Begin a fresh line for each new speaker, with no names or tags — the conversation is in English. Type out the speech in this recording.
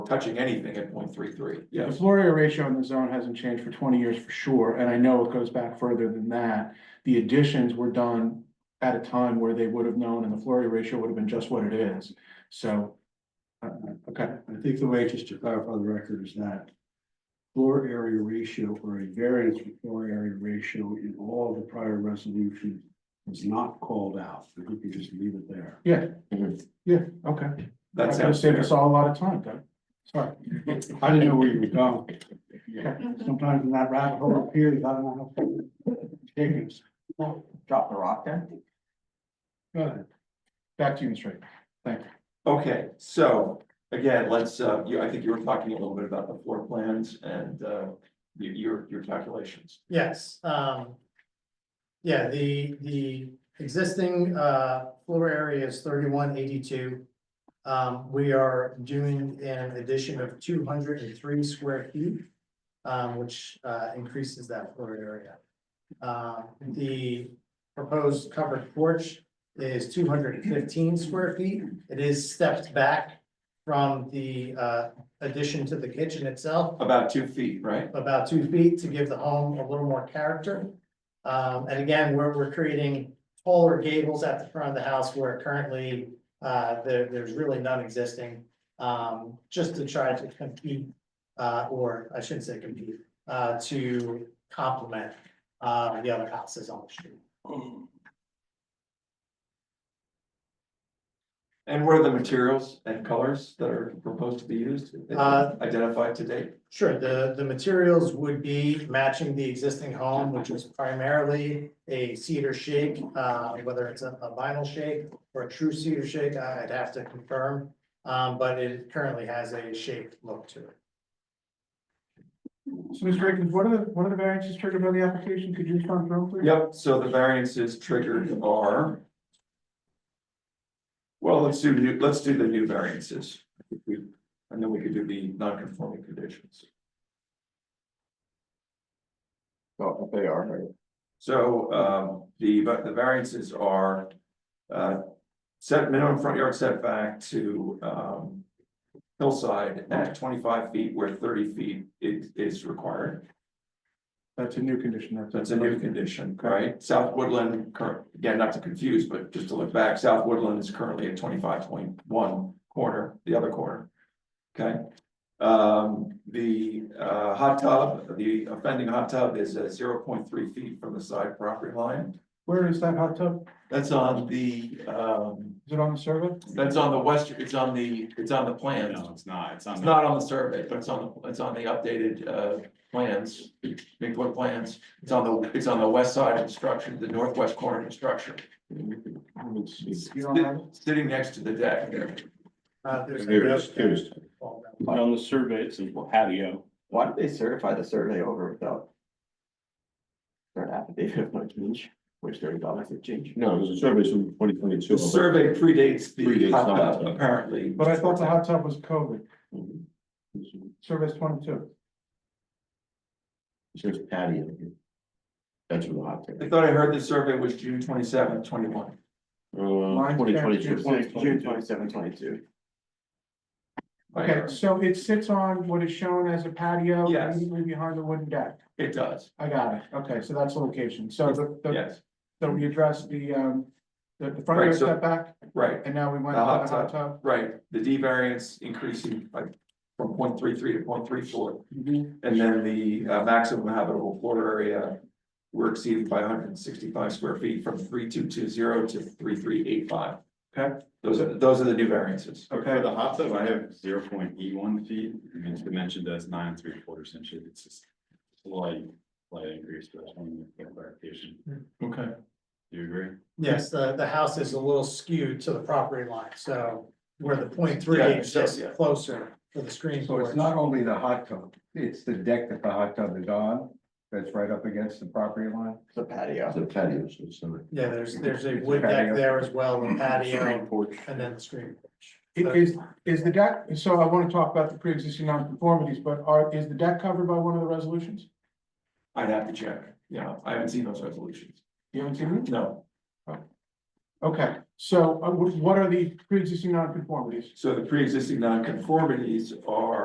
touching anything at point three three,
The
yes.
floor area ratio in the zone hasn't changed for twenty years for sure, and I know it goes back further than that. The additions were done at a time where they would have known and the floor area ratio would have been just what it is, so. uh, okay,
I think the way, just to clarify the record, is that floor area ratio or a variance for floor area ratio in all the prior resolutions was not called out. I think you just leave it there.
yeah.
Mhm.
Yeah, okay.
That
gonna
sounds
save
fair.
us all a lot of time, Doug. Sorry.
I didn't know where you were going. Sometimes in that rabbit hole appears, I don't know how. Chickens.
Drop the rock there.
Go ahead.
Back to you, Mr. Ray.
Okay, so again, let's, uh, you, I think you were talking a little bit about the floor plans and, uh, your, your, your calculations.
Yes, um. Yeah, the, the existing, uh, floor area is thirty-one eighty-two. Um, we are doing an addition of two hundred and three square feet, um, which, uh, increases that floor area. Uh, the proposed covered porch is two hundred and fifteen square feet. It is stepped back from the, uh, addition to the kitchen itself
About two feet, right?
about two feet to give the home a little more character. Um, and again, we're, we're creating taller gables at the front of the house where currently, uh, there, there's really none existing. Um, just to try to compete, uh, or I shouldn't say compete, uh, to complement, uh, the other houses on the street.
And what are the materials and colors that are proposed to be used? that
Uh,
you've Identified to date?
Sure, the, the materials would be matching the existing home, which is primarily a cedar shake, uh, whether it's a a vinyl shake or a true cedar shake, I- I'd have to confirm. Um, but it currently has a shaped look to it.
So, Mr. Ray, what are the, what are the variances triggered by the application? Could you respond real quick?
Yep, so the variances triggered are. Well, let's do new, let's do the new variances. If we- And then we could do the non-conforming conditions.
Oh, they are, right?
So um the but the variances are. Uh set minimum front yard setback to um. Hillside at twenty-five feet where thirty feet is is required.
That's a new condition.
That's a new condition, right? South Woodland current, again, not to confuse, but just to look back, South Woodland is currently at twenty-five point one corner, the other corner. Okay, um, the uh hot tub, the offending hot tub is at zero point three feet from the side property line.
Where is that hot tub?
That's on the, um,
Is it on the survey?
that's on the western, it's on the, it's on the plans.
No, it's not, it's on.
It's
the-
not on the survey, but it's on, the it's on the updated, uh, plans, big book plans. It's on the, it's on the west side of the structure, the northwest corner of the structure,
You don't have it?
sitting next to the deck.
Uh, there's.
Here it is, here it is.
Well, no.
On the survey, it says patio.
Why did they certify the survey over without? Their affidavit of no change, which they're obviously change.
No, there's a survey from twenty twenty-two.
The survey predates the
Predates
hot
the hot
tub,
tub.
apparently.
But I thought the hot tub was COVID.
Mhm.
Survey's twenty-two.
There's patio. That's what the hot tub.
I thought I heard the survey was June 27, 21.
Uh,
Mine's
twenty
June
twenty-two.
22.
June twenty-seven, twenty-two.
Okay, so it sits on what is shown as a patio
Yes.
immediately behind the wooden deck.
It does,
I got it. Okay, so that's the location. So the, the,
yes,
so we addressed the, um, the, the front
Right,
yard
so-
setback
right,
and now we went
The
to
hot
the hot tub.
right. The D variance increasing by from 0.33 to 0.34. And then the uh, maximum habitable floor area were exceeded by hundred and sixty-five square feet from three two two zero to three three eight five. Okay, those are, those are the new variances.
Okay, the hot tub, I have zero point E one feet, I mean, it's dimensioned as nine and three quarters inches, it's just. Slight, slight increase, but I just wanted to get clarification,
Okay.
do you agree?
Yes, the, the house is a little skewed to the property line, so where the point three
Yeah,
is
so,
just
yeah.
closer to the screen.
So it's
porch.
not only the hot tub, it's the deck that the hot tub is on, that's right up against the property line.
It's a patio.
The patio, so it's not.
Yeah, there's, there's a
It's a
wood deck
patio.
there as well, a patio, and then the screen porch.
It Is, is the deck, so I want to talk about the pre-existing non-conformities, but are, is the deck covered by one of the resolutions?
I'd have to check, yeah, I haven't seen those resolutions,
You haven't seen it?
no,
Okay, So uh, wh- what are the pre-existing non-conformities?
So the pre-existing nonconformities are